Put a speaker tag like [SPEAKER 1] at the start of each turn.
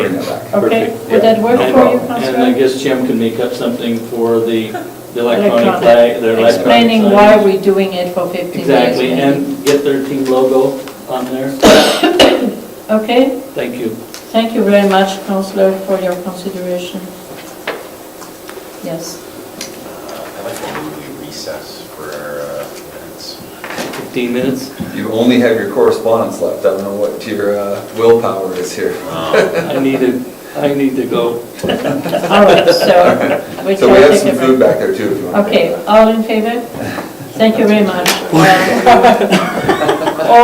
[SPEAKER 1] Okay,
[SPEAKER 2] Perfect,
[SPEAKER 1] would that
[SPEAKER 2] yeah.
[SPEAKER 1] work
[SPEAKER 2] No
[SPEAKER 1] for you,
[SPEAKER 2] problem. And I
[SPEAKER 1] Counselor?
[SPEAKER 2] guess Jim can make up something for the the electronic
[SPEAKER 1] Electronic.
[SPEAKER 2] flag, their electronic
[SPEAKER 1] Explaining
[SPEAKER 2] signs.
[SPEAKER 1] why we're doing it for 15 years.
[SPEAKER 2] Exactly,
[SPEAKER 1] maybe.
[SPEAKER 2] and get their team logo on there.
[SPEAKER 1] Okay,
[SPEAKER 2] Thank you.
[SPEAKER 1] thank you very much, Counselor, for your consideration. Yes,
[SPEAKER 3] I'd like to move we recess for our uh, minutes.
[SPEAKER 2] 15 minutes?
[SPEAKER 4] You only have your correspondence left. I don't know what your uh, willpower is here.
[SPEAKER 2] I need to, I need to go.
[SPEAKER 1] all right, so. we
[SPEAKER 4] So
[SPEAKER 1] shall
[SPEAKER 4] we have
[SPEAKER 1] take
[SPEAKER 4] some
[SPEAKER 1] a
[SPEAKER 4] food
[SPEAKER 1] break.
[SPEAKER 4] back there too, if you want to.
[SPEAKER 1] Okay, all in favor? Thank you very much. Uh,